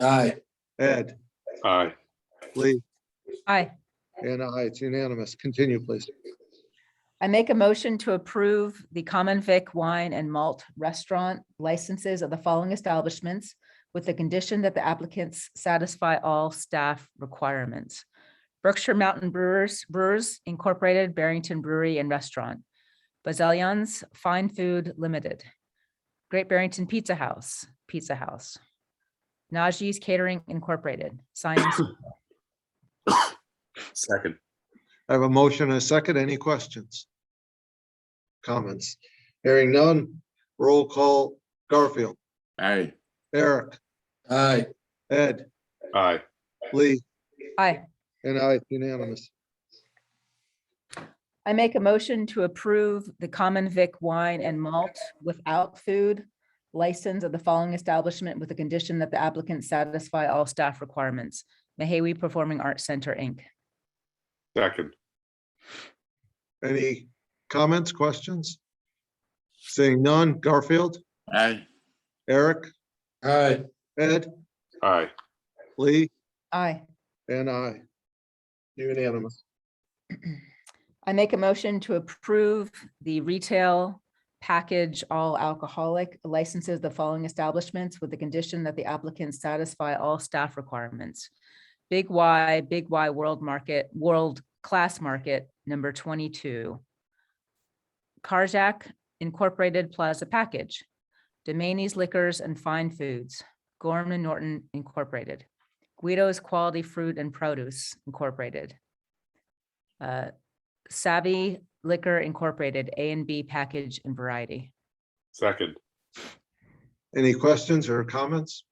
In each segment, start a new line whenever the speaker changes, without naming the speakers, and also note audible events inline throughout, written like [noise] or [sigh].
Aye.
Ed,
Aye.
Lee,
Aye.
and I, it's unanimous. Continue, please.
I make a motion to approve the common vic wine and malt restaurant licenses of the following establishments with the condition that the applicants satisfy all staff requirements. Berkshire Mountain Brewers, Brewers Incorporated, Barrington Brewery and Restaurant, Bazillion's Fine Food Limited, Great Barrington Pizza House, Pizza House, Najee's Catering Incorporated, Science,
Second.
I have a motion and a second. Any questions? Comments? Hearing none. Roll call, Garfield,
Aye.
Eric,
Aye.
Ed,
Aye.
Lee,
aye.
and I, it's unanimous.
I make a motion to approve the common vic wine and malt without food license of the following establishment with the condition that the applicants satisfy all staff requirements. Mahawi Performing Arts Center, Inc.
Second.
Any comments, questions? Seeing none. Garfield,
Aye.
Eric,
Aye.
Ed,
Aye.
Lee,
Aye.
and I. Unanimous.
I make a motion to approve the retail package all alcoholic licenses, of the following establishments with the condition that the applicants satisfy all staff requirements. Big Y, Big Y World Market, World Class Market, number twenty-two. Carjack Incorporated Plaza Package, Domaney's Liquors and Fine Foods, Gorman and Norton Incorporated, Guido's Quality Fruit and Produce Incorporated. Uh, Savvy Liquor Incorporated, A and B Package and Variety.
Second.
Any questions or comments?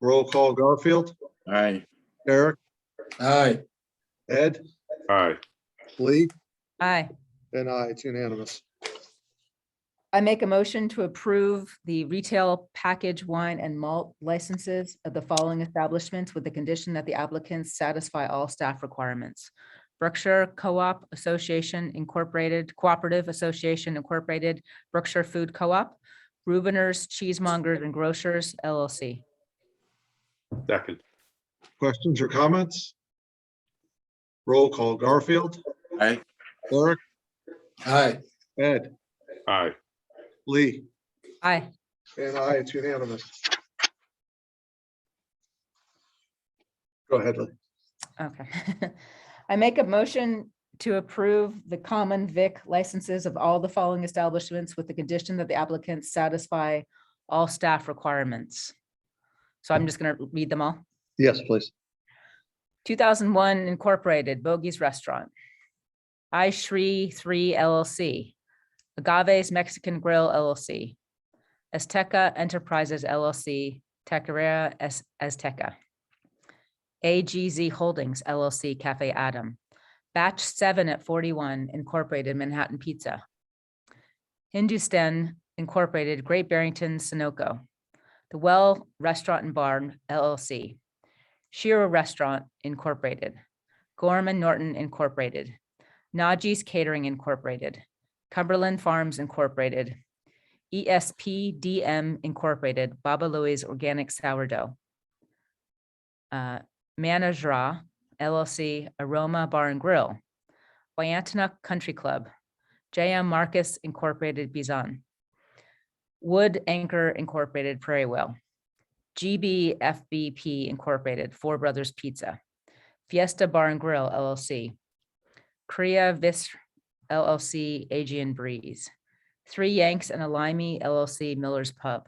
Roll call, Garfield,
Aye.
Eric,
Aye.
Ed,
Aye.
Lee,
Aye.
And I, it's unanimous.
I make a motion to approve the retail package wine and malt licenses of the following establishments with the condition that the applicants satisfy all staff requirements. Berkshire Co-op Association Incorporated, Cooperative Association Incorporated, Berkshire Food Co-op, Rubiners, Cheesemongers and Grocers LLC.
Second.
Questions or comments? Roll call, Garfield,
Aye.
Eric,
Aye.
Ed,
Aye.
Lee,
Aye.
and I, it's unanimous. Go ahead, Lee.
Okay. [laughs] I make a motion to approve the common vic licenses of all the following establishments with the condition that the applicants satisfy all staff requirements. So I'm just going to read them all.
Yes, please.
2001 Incorporated, Bogey's Restaurant. I Shree Three LLC. Agave's Mexican Grill LLC. Azteca Enterprises LLC, Tequeria Az- Azteca. AGZ Holdings LLC Cafe Adam. Batch Seven at 41 Incorporated Manhattan Pizza. Hindustan Incorporated Great Barrington Sunoco. The Well Restaurant and Barn LLC. Shira Restaurant Incorporated, Gorman Norton Incorporated, Najee's Catering Incorporated, Cumberland Farms Incorporated, E ESPDM Incorporated, Baba Louie's Organic Sourdough, uh, Manajra LLC Aroma Bar and Grill, Wyandotte Country Club, JM Marcus Incorporated Bizon, Wood Anchor Incorporated Prairie Well, GBFBP Incorporated, Four Brothers Pizza, Fiesta Bar and Grill LLC, Korea Vis LLC, Aegean Breeze, Three Yanks and a Limey LLC, Miller's Pub,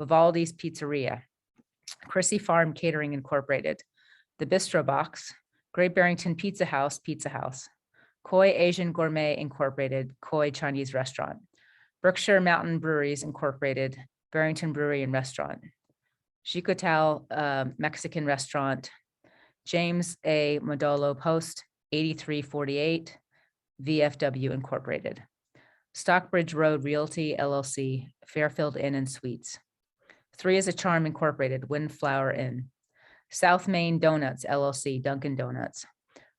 Vivaldi's Pizzeria, Chrissy Farm Catering Incorporated, The Bistro Box, Great Barrington Pizza House, Pizza House, Koi Asian Gourmet Incorporated, Koi Chinese Restaurant, Berkshire Mountain Breweries Incorporated, Barrington Brewery and Restaurant, Chicotal uh, Mexican Restaurant, James A. Modolo Post, 8348, VFW Incorporated, Stockbridge Road Realty LLC, Fairfield Inn and Suites, Three is a Charm Incorporated, Windflower Inn, South Main Donuts LLC, Dunkin' Donuts,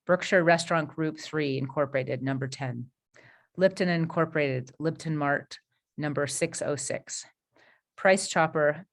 Berkshire Restaurant Group 3 Incorporated, Number 10, Lipton Incorporated, Lipton Mart, Number 606, Price Chopper